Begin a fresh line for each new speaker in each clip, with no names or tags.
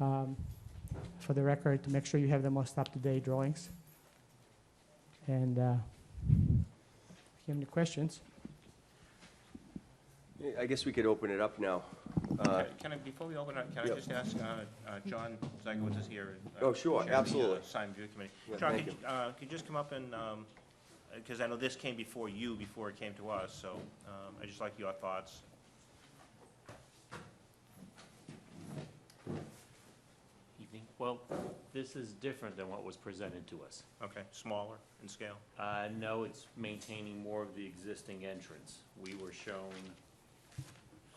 um, for the record, to make sure you have the most up-to-date drawings. And uh, if you have any questions?
Yeah, I guess we could open it up now. Uh,
Can can I, before we open up, can I
Yep.
just ask, uh, uh, John Zagowitz is here. uh,
Oh, sure,
chair of the, uh,
absolutely.
Sign Review Committee.
Yeah,
John,
thank
could, you- uh, could you just come up and, because I know this came before you, before it came to us, so um, I'd just like your thoughts.
Evening. Well, this is different than what was presented to us.
Okay, smaller in scale?
Uh, no, it's maintaining more of the existing entrance. We were shown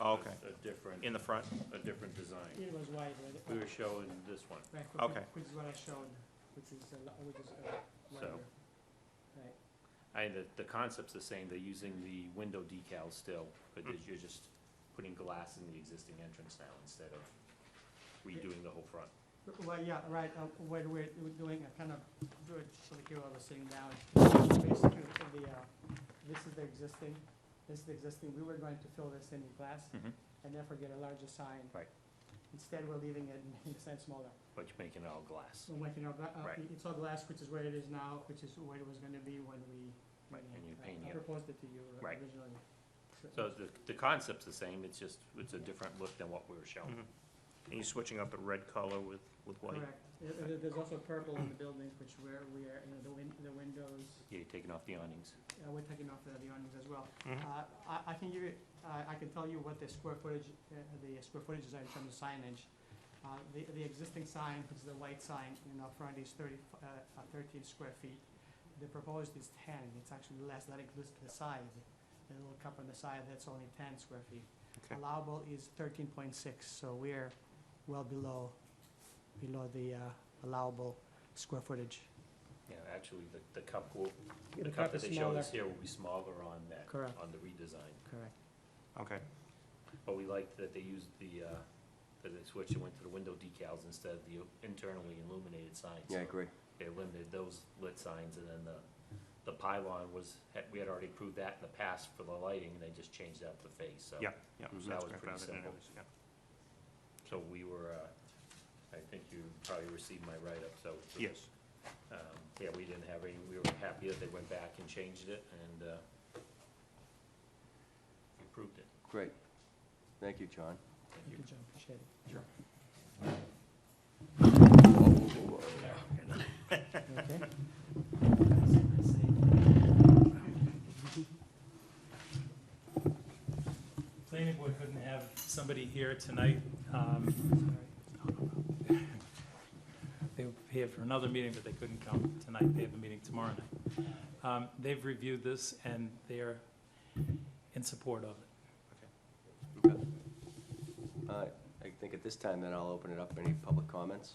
Oh, Okay,
a different,
in the front?
a different design.
It was wide,
We were showing this one.
Okay.
Which is what I showed, which is, uh, which is
So- wider. I, the, the concept's the same. They're using the window decals still, but
Mm.
you're just putting glass in the existing entrance now instead of redoing the whole front.
Well, yeah, right, uh, what we're we're doing, I kind of do it so the people are sitting down. Basically, the, uh, this is the existing, this is the existing, we were going to fill this in with glass
Mm-hmm.
Mhm.
and therefore get a larger sign.
Right.
Instead, we're leaving it in the sign smaller.
But you're making it all glass.
So like, you know, gla- uh,
Right.
it's all glass, which is where it is now, which is where it was gonna be when we.
Right,
when
and
I-
you're
I-
painting
I
it.
proposed it to you
Right.
originally.
So the, the concept's the same. It's just, it's a different look than what we were shown.
Mhm. And you're switching up the red color with, with white?
Correct. Uh, uh, There's also purple in the buildings, which where we are, you know, the win, the windows,
Mm.
Yeah, you're taking off the awnings.
uh, we're taking off the, the awnings as well.
Mhm.
Uh, I, I can give you, uh, I, I can tell you what the square footage, uh, the square footages are in terms of signage. Uh, the, the existing sign, which is the white sign, in our front is thirty, f- uh, uh, thirteen square feet. The proposed is ten, it's actually less, that includes the side, the little cup on the side, that's only ten square feet.
Okay.
Allowable is thirteen point six, so we're well below, below the, uh, allowable square footage.
Yeah, actually, the, the cup will,
Yeah,
the
the cup
cup that
is
they showed us
smaller.
here will be smaller on that,
Correct.
on the redesign.
Correct.
Mm-hmm.
Okay,
But we liked that they used the, uh, that they switched and went to the window decals instead of the internally illuminated signs.
Yeah, I
So
agree.
They limited those lit signs, and then the, the pylon was, had- we had already approved that in the past for the lighting, and they just changed out the face, so.
yeah, yeah.
Mhm.
so
That
that's
was
great,
pretty
rather than it
simple.
was- yeah.
So we were, uh, I think you probably received my write-up, so. it was-
Yes,
Um, yeah, we didn't have any, we were happy that they went back and changed it and, uh, improved it.
Great. Thank you, John.
Thank you.
Good job, appreciate it. Okay.
planning board couldn't have somebody here tonight. um, They were here for another meeting, but they couldn't come tonight. They have a meeting tomorrow night. Um, They've reviewed this and they're in support of it.
Okay. Uh, I think at this time, then I'll open it up. Any public comments?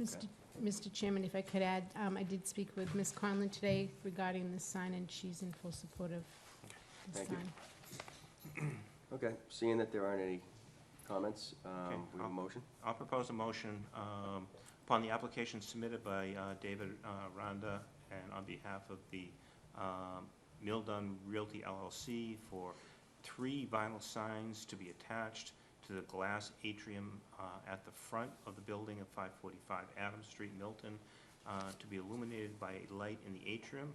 Mr. Mr. Chairman, if I could add, um, I did speak with Ms. Conlon today regarding this sign, and she's in full support of the
Thank you.
sign.
Okay, seeing that there aren't any comments,
Okay,
um, we have a
I'll-
motion?
I'll propose a motion um, upon the application submitted by uh, David uh, Ronda and on behalf of the um, Mildon Realty LLC for three vinyl signs to be attached to the glass atrium uh, at the front of the building of 545 Adams Street, Milton, uh, to be illuminated by a light in the atrium,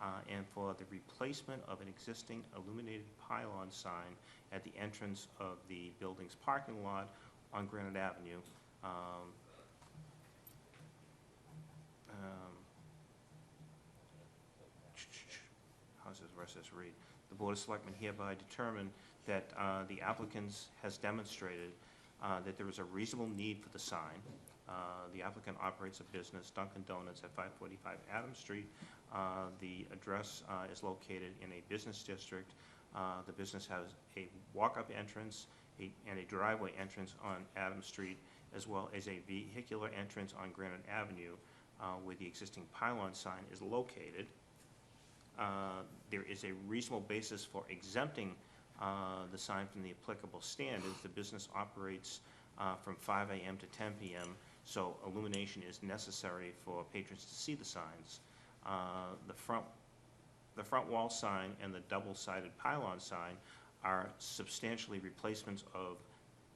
uh, and for the replacement of an existing illuminated pylon sign at the entrance of the building's parking lot on Granite Avenue. Um, um, How's this, where's this read? The Board of Selectmen hereby determine that uh, the applicant's has demonstrated uh, that there is a reasonable need for the sign. Uh, The applicant operates a business, Dunkin' Donuts, at 545 Adams Street. Uh, The address uh, is located in a business district. Uh, The business has a walk-up entrance a- and a driveway entrance on Adams Street, as well as a vehicular entrance on Granite Avenue uh, where the existing pylon sign is located. Uh, There is a reasonable basis for exempting uh, the sign from the applicable standards. The business operates uh, from 5 AM to 10 PM, so illumination is necessary for patrons to see the signs. Uh, The front, the front wall sign and the double-sided pylon sign are substantially replacements of